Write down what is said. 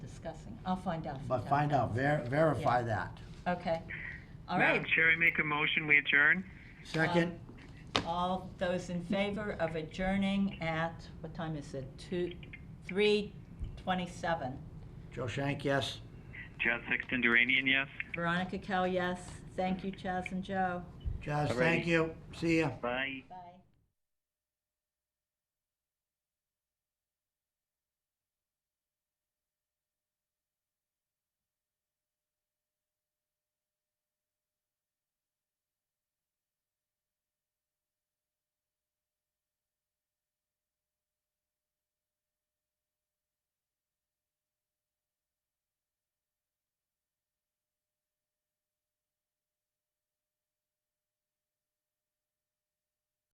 discussing. I'll find out. from But town find out, council. ver- verify Yeah. that. Okay. All Madam right. Chair, I make a motion, we adjourn? Second, All those in favor of adjourning at, what time is it? Two, three twenty-seven. Joe Shank, yes. Chad Sexton Duranian, yes? Veronica Kell, yes. Thank you, Chaz and Joe. Jazz, Alrighty. thank you. See ya. Bye. Bye.